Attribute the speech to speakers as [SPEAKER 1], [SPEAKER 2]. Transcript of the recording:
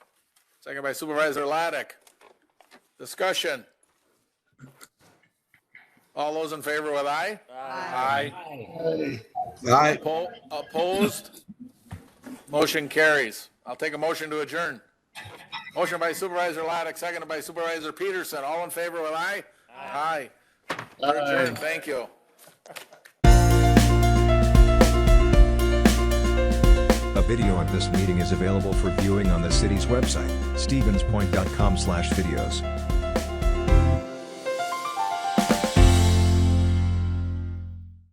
[SPEAKER 1] Second by Supervisor Laddick. Discussion. All those in favor with aye? Aye.
[SPEAKER 2] Aye.
[SPEAKER 1] Po- Opposed? Motion carries. I'll take a motion to adjourn. Motion by Supervisor Laddick, seconded by Supervisor Peterson. All in favor with aye? Aye. We're adjourned. Thank you.
[SPEAKER 3] A video of this meeting is available for viewing on the city's website, stevenspoint.com/videos.